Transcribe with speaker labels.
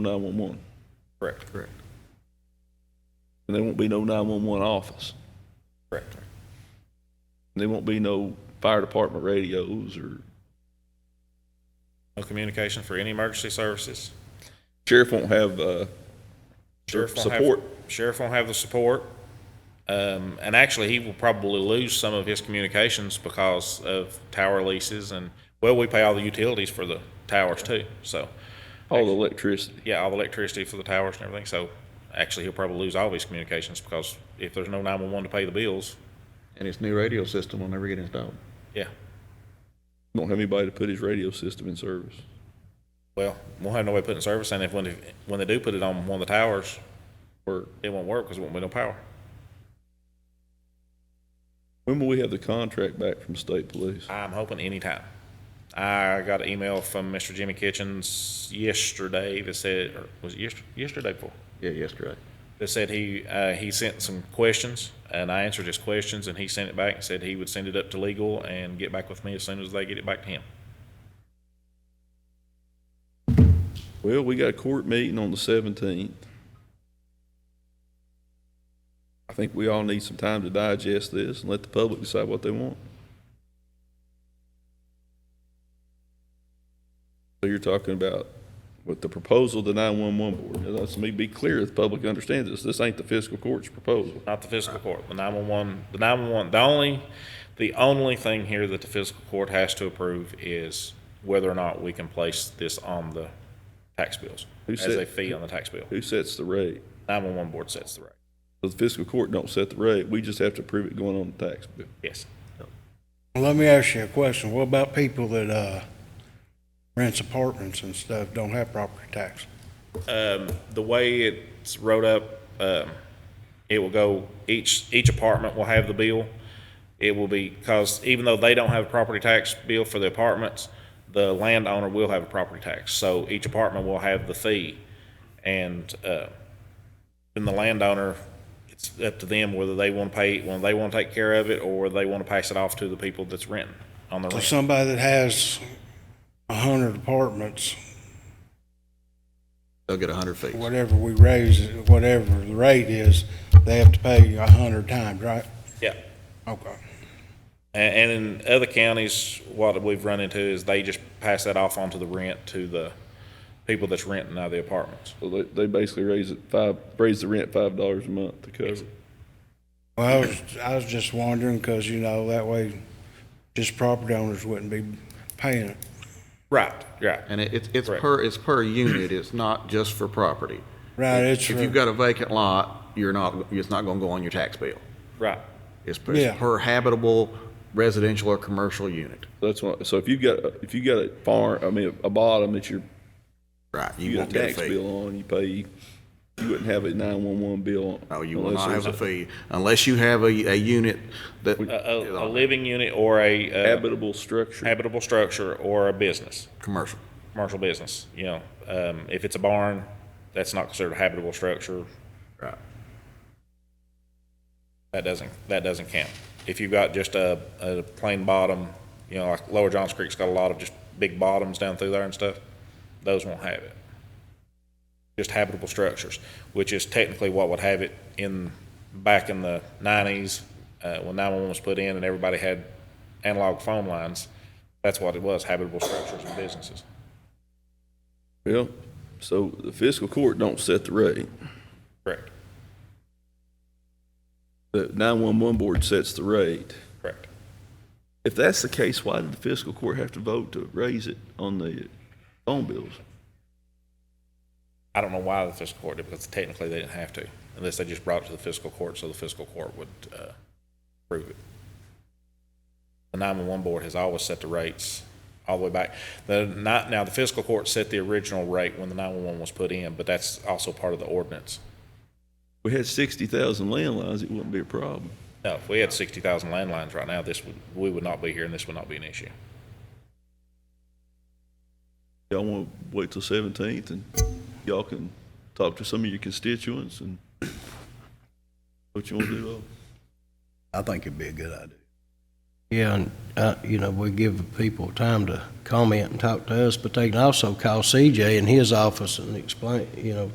Speaker 1: 911. Correct.
Speaker 2: Correct.
Speaker 1: And there won't be no 911 office.
Speaker 2: Correct.
Speaker 1: And there won't be no fire department radios or
Speaker 2: No communication for any emergency services.
Speaker 1: sheriff won't have, uh,
Speaker 2: Sheriff won't have-
Speaker 1: support.
Speaker 2: Sheriff won't have the support. Um, and actually, he will probably lose some of his communications because of tower leases and, well, we pay all the utilities for the towers too. So,
Speaker 1: all the electricity.
Speaker 2: yeah, all the electricity for the towers and everything. So actually, he'll probably lose all of his communications because if there's no 911 to pay the bills,
Speaker 3: And his new radio system will never get installed.
Speaker 2: yeah.
Speaker 1: Don't have anybody to put his radio system in service.
Speaker 2: Well, we'll have no way of putting it in service. And if, when, when they do put it on one of the towers,
Speaker 1: Or
Speaker 2: it won't work because there won't be no power.
Speaker 1: when will we have the contract back from state police?
Speaker 2: I'm hoping anytime. I got an email from Mr. Jimmy Kitchens yesterday that said, or was it yesterday, yesterday before?
Speaker 3: Yeah, yesterday.
Speaker 2: That said he, uh, he sent some questions and I answered his questions and he sent it back and said he would send it up to legal and get back with me as soon as they get it back to him.
Speaker 1: Well, we got a court meeting on the 17th. I think we all need some time to digest this and let the public decide what they want. So you're talking about with the proposal, of the 911 board. Now, Let's me be clear, the public understands this. This ain't the fiscal court's proposal.
Speaker 2: Not the fiscal court, the nine-one-one, the nine-one-one, the only, the only thing here that the fiscal court has to approve is whether or not we can place this on the tax bills.
Speaker 1: Who
Speaker 2: As
Speaker 1: said-
Speaker 2: a fee on the tax bill.
Speaker 1: Who sets the rate?
Speaker 2: Nine-one-one board sets the rate.
Speaker 1: The fiscal court don't set the rate. We just have to approve it going on the tax bill.
Speaker 2: Yes.
Speaker 4: Let me ask you a question. What about people that, uh, rents apartments and stuff, don't have property tax?
Speaker 2: um, the way it's wrote up, um, it will go, each, each apartment will have the bill. It will be, because even though they don't have a property tax bill for the apartments, the landowner will have a property tax. So each apartment will have the fee. And, uh, then the landowner, it's up to them whether they want to pay, when they want to take care of it, or they want to pass it off to the people that's renting on the
Speaker 4: So
Speaker 2: rent.
Speaker 4: somebody that has a hundred apartments,
Speaker 3: They'll get a hundred feet.
Speaker 4: whatever we raise, whatever the rate is, they have to pay a hundred times, right?
Speaker 2: Yeah.
Speaker 4: Okay.
Speaker 2: And, and in other counties, what we've run into is they just pass that off onto the rent to the people that's renting out the apartments.
Speaker 1: So they, they basically raise it five, raise the rent $5 a month to cover it.
Speaker 4: Well, I was, I was just wondering, cause you know, that way just property owners wouldn't be paying it.
Speaker 2: Right. Right.
Speaker 3: And it, it's, it's
Speaker 2: Correct.
Speaker 3: per, it's per unit, it's not just for property.
Speaker 4: Right, it's
Speaker 3: If you've
Speaker 4: for,
Speaker 3: got a vacant lot, you're not, it's not gonna go on your tax bill.
Speaker 2: Right.
Speaker 3: It's per, it's
Speaker 4: Yeah.
Speaker 3: per habitable residential or commercial unit.
Speaker 1: That's what, so if you've got, a- if you got a farm, I mean, a bottom that you're,
Speaker 3: Right, you
Speaker 1: you got
Speaker 3: won't
Speaker 1: a
Speaker 3: get a
Speaker 1: tax
Speaker 3: fee.
Speaker 1: bill on, you pay, you wouldn't have a nine-one-one bill.
Speaker 3: No, you will
Speaker 1: unless
Speaker 3: not have a
Speaker 1: there's
Speaker 3: fee unless you have a, a unit that,
Speaker 2: A, a living unit or a uh,
Speaker 1: Habitable structure.
Speaker 2: habitable structure or a business,
Speaker 3: commercial.
Speaker 2: commercial business. You know, um, if it's a barn, that's not considered a habitable structure.
Speaker 3: Right.
Speaker 2: That doesn't, that doesn't count. If you've got just a, a plain bottom, you know, like Lower Johns Creek's got a lot of just big bottoms down through there and stuff, those won't have it. Just habitable structures, which is technically what would have it in, back in the nineties, uh, when nine-one-one was put in and everybody had analog phone lines. That's what it was, habitable structures and businesses.
Speaker 1: Well, so the fiscal court don't set the rate.
Speaker 2: Correct,
Speaker 1: The nine-one-one board sets the rate.
Speaker 2: correct.
Speaker 1: If that's the case, why did the fiscal court have to vote to raise it on the phone bills?
Speaker 2: I don't know why the fiscal court did, because technically they didn't have to, unless they just brought it to the fiscal court, so the fiscal court would uh, approve it. The 911 board has always set the rates all the way back. The, not, now, the fiscal court set the original rate when the 911 was put in, but that's also part of the ordinance.
Speaker 1: We had sixty thousand landlines, it wouldn't be a problem.
Speaker 2: Now, if we had 60,000 landlines right now, this would, we would not be here, and this would not be an issue.
Speaker 1: Y'all wanna wait till seventeenth and y'all can talk to some of your constituents and what you wanna do. uh,
Speaker 5: I think it'd be a good idea. Yeah, and, uh, you know, we give people time to comment and talk to us, but they can also call CJ in his office and explain, you know,